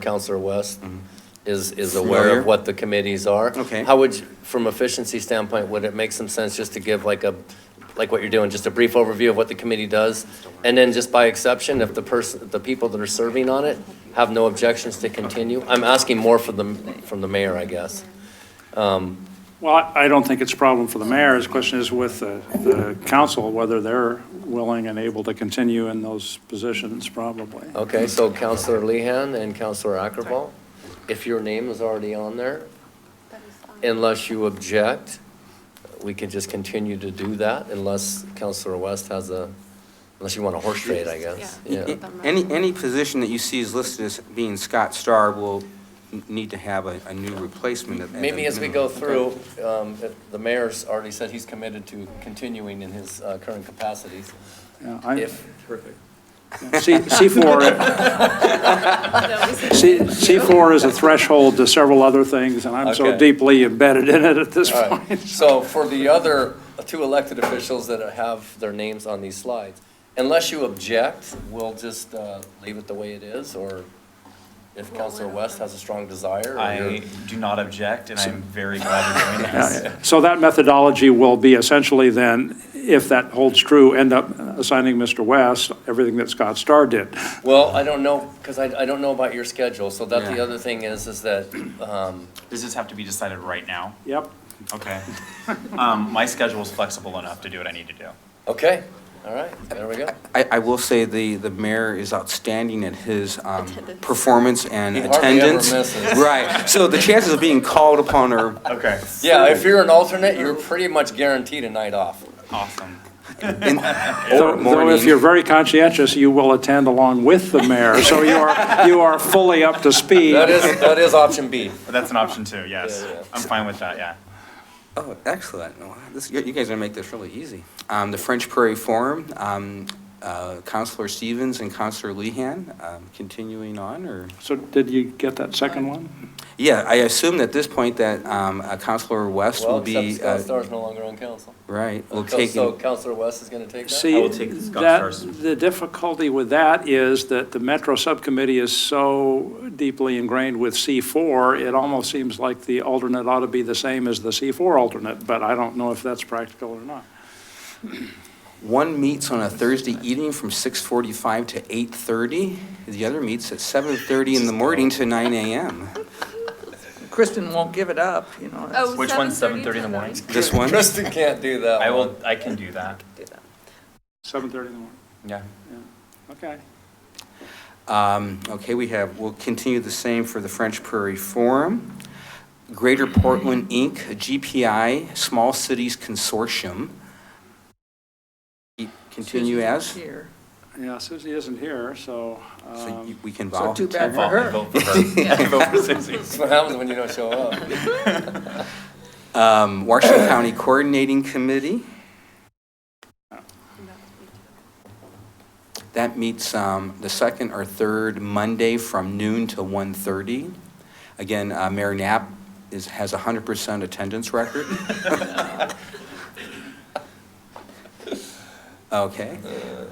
Counselor West is, is aware Mm-hmm. Familiar? of what the committees are. Okay. How would, you- from efficiency standpoint, would it make some sense just to give like a, like what you're doing, just a brief overview of what the committee does? And then just by exception, if the person, the people that are serving on it have no objections to continue? I'm asking more for the, from the mayor, I guess. Well, I- I don't think it's a problem for the mayor. His question is with the- the council, whether they're willing and able to continue in those positions, probably. Okay, so Counselor Lehan and Counselor Ackerval, if your name is already on there, unless you object, we can just continue to do that unless Counselor West has a, unless you want a horse trade, I guess. Y- Yeah, y- Any, any position that you see is listed as being Scott Star will n- need to have a, a new replacement. at- at a Maybe as we go minimum. through, um, if the mayor's already said he's committed to continuing in his uh, current capacities. Yeah, I- If, C- C4, C- C4 is a threshold to several other things, and I'm so Okay. deeply embedded in it at this All point. right, so for the other two elected officials that have their names on these slides, unless you object, we'll just uh, leave it the way it is, or if Counselor West has a strong desire. or I you're- do not object, and I'm very glad you're doing Yeah, this. yeah. So that methodology will be essentially then, if that holds true, end up assigning Mr. West everything that Scott Starr did. Well, I don't know, because I, I don't know about your schedule, so that the Yeah. other thing is, is that, um, Does this have to be decided right now? Yep. Okay. Um, my schedule's flexible enough to do what I need to do. okay, all right, there we go. I, I will say the, the mayor is outstanding at his um, Attendance. performance and He hardly ever attendance. misses. Right, so the chances of being called upon are, Okay, Yeah, if you're an alternate, you're pretty much guaranteed a night off. awesome. in- or Though though if you're morning. very conscientious, you will attend along with the mayor, so you are, you are fully up to speed. That is, that is option B. But that's an option too, yes. Yeah, yeah. I'm fine with that, yeah. Oh, excellent. Wow, this- You you guys are gonna make this really easy. Um, The French Prairie Forum, um, uh, Counselor Stevens and Counselor Lehan, um, continuing on, or? So did you get that second one? Yeah, I assume at this point that um, uh, Counselor West Well, will except be, Scott uh, Starr's no longer on council. right, will So- take, So in- Counselor West is gonna take that? See, will take the Scott that, Starr's. the difficulty with that is that the Metro Subcommittee is so deeply ingrained with C4, it almost seems like the alternate ought to be the same as the C4 alternate, but I don't know if that's practical or not. one meets on a Thursday evening from 6:45 to 8:30. The other meets at 7:30 in the morning to 9 AM. Kristen won't give it up, you know. that's- Oh, Which one's 7:30 in the 7:30 morning? This one? Kristen can't do that. I one. will, I can do that. 7:30 in the morning, Yeah. okay. Um, Okay, we have, we'll continue the same for the French Prairie Forum. Greater Portland, Inc., GPI, Small Cities Consortium. Continue as? Here. Yeah, Susie isn't here, so, So you- um, we can So volunteer. too bad for I her. vote for her. I vote for Susie. That's what happens when you don't show up. Um, Washington County Coordinating Committee. That meets um, the second or third Monday from noon to 1:30. Again, uh, Mayor Knapp is, has 100% attendance record. Okay.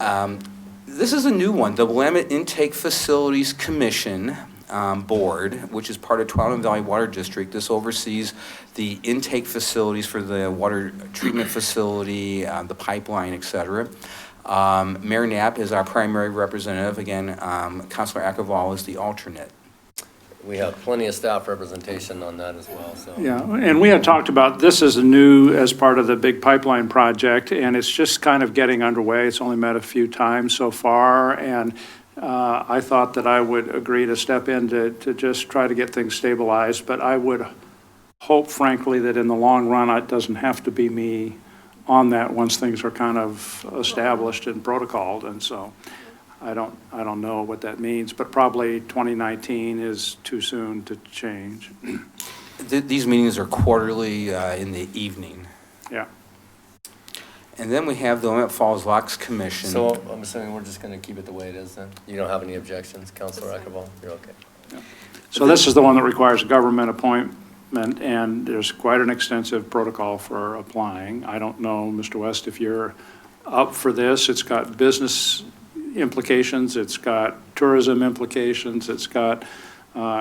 Um, This is a new one, the Willamette Intake Facilities Commission um, Board, which is part of Tuolumne Valley Water District. This oversees the intake facilities for the water treatment facility, uh, the pipeline, et cetera. Um, Mayor Knapp is our primary representative. Again, um, Counselor Akval is the alternate. We have plenty of staff representation on that as well, so. yeah, and we had talked about, this is new as part of the big pipeline project, and it's just kind of getting underway. It's only met a few times so far, and uh, I thought that I would agree to step in to, to just try to get things stabilized, but I would hope frankly that in the long run, it doesn't have to be me on that once things are kind of established and protocoled, and so I don't, I don't know what that means, but probably 2019 is too soon to change, Th- These meetings are quarterly uh, in the evening. yeah. And then we have the Willamette Falls Locks Commission. So I'm assuming we're just gonna keep it the way it is then? You don't have any objections, Counselor That's fine. Akarbal? You're okay. So this is the one that requires a government appointment, and there's quite an extensive protocol for applying. I don't know, Mr. West, if you're up for this. It's got business implications, it's got tourism implications, it's got uh,